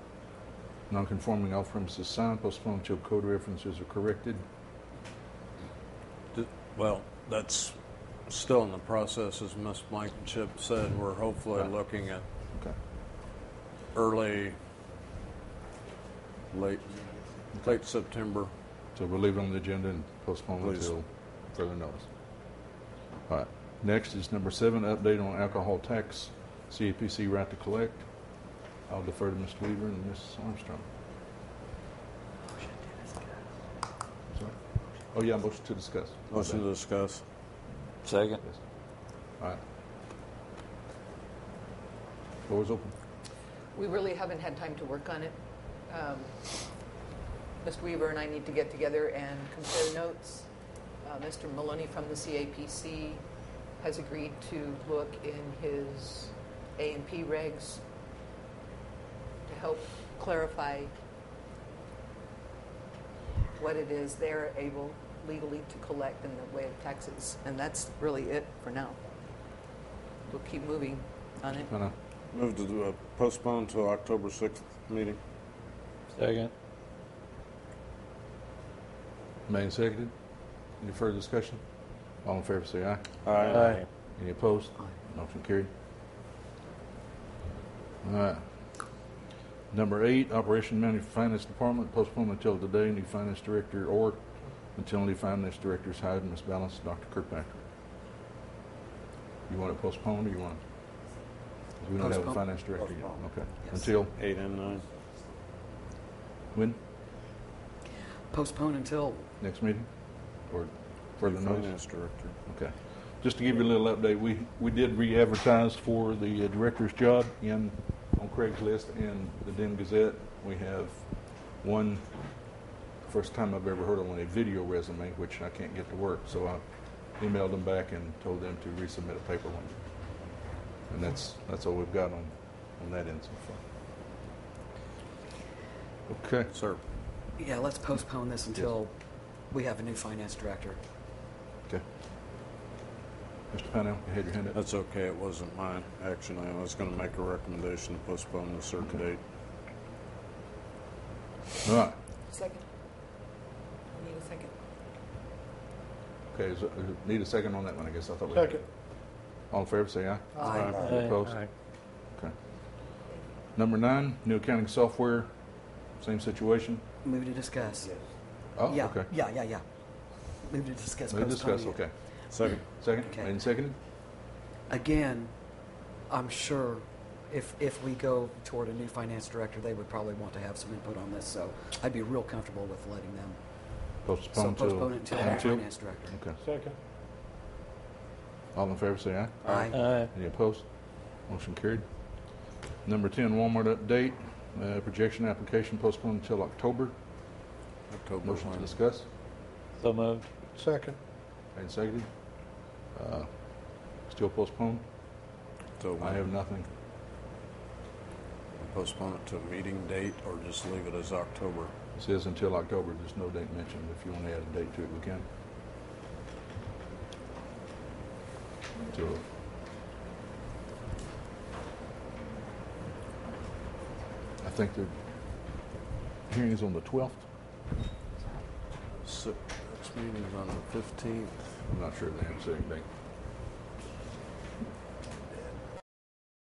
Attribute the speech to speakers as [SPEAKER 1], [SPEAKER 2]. [SPEAKER 1] Non-conforming off-premise is signed, postponed till code references are corrected.
[SPEAKER 2] D- Well, that's still in the process, as Ms. Blankenship said, we're hopefully
[SPEAKER 1] Right.
[SPEAKER 2] looking at
[SPEAKER 1] Okay.
[SPEAKER 2] early, late, late September.
[SPEAKER 1] So we'll leave it on the agenda and postpone
[SPEAKER 2] Please.
[SPEAKER 1] until further notice. All right. Next is number seven, update on alcohol tax, CAPC right to collect. I'll defer to Mr. Weaver and Ms. Armstrong. Sorry? Oh, yeah, motion to discuss. My
[SPEAKER 2] Motion
[SPEAKER 1] bad.
[SPEAKER 2] to discuss.
[SPEAKER 3] Second.
[SPEAKER 1] Yes. All right. Floor is open.
[SPEAKER 4] We really haven't had time to work on it. Um, Mr. Weaver and I need to get together and compare notes. Uh, Mr. Maloney from the CAPC has agreed to look in his A and P regs to help clarify what it is they're able legally to collect in the way of taxes. And that's really it for now. We'll keep moving on it.
[SPEAKER 1] Can I-
[SPEAKER 2] Move to uh, postpone to October 6th meeting.
[SPEAKER 3] Second.
[SPEAKER 1] Made and seconded. Any further discussion? All in favor, say aye.
[SPEAKER 3] Aye.
[SPEAKER 1] Any opposed? Motion carried. All right. Number eight, Operation Manager Finance Department, postponed until today, new finance director or until new finance director's hired and misbalanced, Dr. Kirkpatrick. You want it postponed or you want? it- We don't have a
[SPEAKER 5] Postpone.
[SPEAKER 1] finance director yet.
[SPEAKER 5] Postpone.
[SPEAKER 1] Okay.
[SPEAKER 5] Yes.
[SPEAKER 1] Until,
[SPEAKER 2] Eight and nine.
[SPEAKER 1] when?
[SPEAKER 5] Postpone until,
[SPEAKER 1] Next meeting? Or further notice?
[SPEAKER 2] Finance director.
[SPEAKER 1] Okay. Just to give you a little update, we, we did re-advertise for the uh, director's job in, on Craigslist and the Den Gazette. We have one, first time I've ever heard of one, a video resume, which I can't get to work. So I emailed them back and told them to resubmit a paper one. And that's, that's all we've got on, on that end so far. Okay.
[SPEAKER 2] Sir,
[SPEAKER 5] yeah, let's postpone this until we have a new finance director.
[SPEAKER 1] Okay. Mr. Pennell, you had your hand up.
[SPEAKER 2] that's okay, it wasn't my action. item. I was going to make a recommendation to postpone a certain date.
[SPEAKER 1] All right.
[SPEAKER 4] Second. Need a second.
[SPEAKER 1] Okay, is, need a second on that one, I guess, I thought we. Second. All in favor, say aye.
[SPEAKER 5] Aye.
[SPEAKER 1] Opposed? Okay. Number nine, new accounting software, same situation?
[SPEAKER 5] Move to discuss.
[SPEAKER 1] Oh,
[SPEAKER 5] Yeah,
[SPEAKER 1] okay.
[SPEAKER 5] yeah, yeah, yeah. Move to discuss.
[SPEAKER 1] Move to discuss,
[SPEAKER 5] postponing it.
[SPEAKER 1] okay.
[SPEAKER 2] Second.
[SPEAKER 1] Second,
[SPEAKER 5] Okay.
[SPEAKER 1] made and seconded?
[SPEAKER 5] Again, I'm sure if, if we go toward a new finance director, they would probably want to have some input on this, so I'd be real comfortable with letting them. So
[SPEAKER 1] Postpone till.
[SPEAKER 5] postpone it until our finance director.
[SPEAKER 1] Okay.
[SPEAKER 6] Second.
[SPEAKER 1] All in favor, say aye.
[SPEAKER 5] Aye.
[SPEAKER 3] Aye.
[SPEAKER 1] Any opposed? Motion carried. Number ten, Walmart update, uh, projection application postponed until October.
[SPEAKER 2] October
[SPEAKER 1] Motion to
[SPEAKER 2] 1.
[SPEAKER 1] discuss,
[SPEAKER 3] So moved.
[SPEAKER 6] Second.
[SPEAKER 1] made and seconded? Uh, Still postponed?
[SPEAKER 2] October
[SPEAKER 1] I have nothing.
[SPEAKER 2] Postpone it to a meeting date or just leave it as October?
[SPEAKER 1] It says until October, there's no date mentioned. If you want to add a date to it, we can. So, I think the hearing is on the 12th.
[SPEAKER 2] Six, next meeting's on the 15th.
[SPEAKER 1] I'm not sure if they have a certain date.